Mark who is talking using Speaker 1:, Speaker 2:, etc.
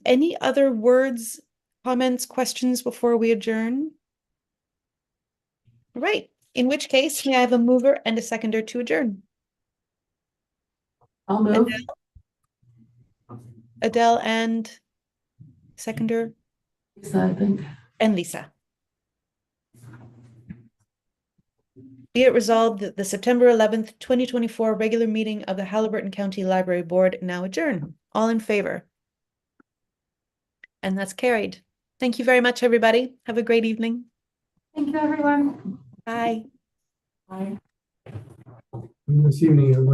Speaker 1: any other words, comments, questions before we adjourn? Right, in which case, may I have a mover and a seconder to adjourn?
Speaker 2: I'll move.
Speaker 1: Adele and seconder
Speaker 2: Lisa, I think.
Speaker 1: and Lisa. Be it resolved that the September eleventh, twenty twenty-four regular meeting of the Halliburton County Library Board now adjourn. All in favor? And that's carried. Thank you very much, everybody. Have a great evening.
Speaker 2: Thank you, everyone.
Speaker 1: Bye.
Speaker 2: Bye.
Speaker 3: This evening, everyone.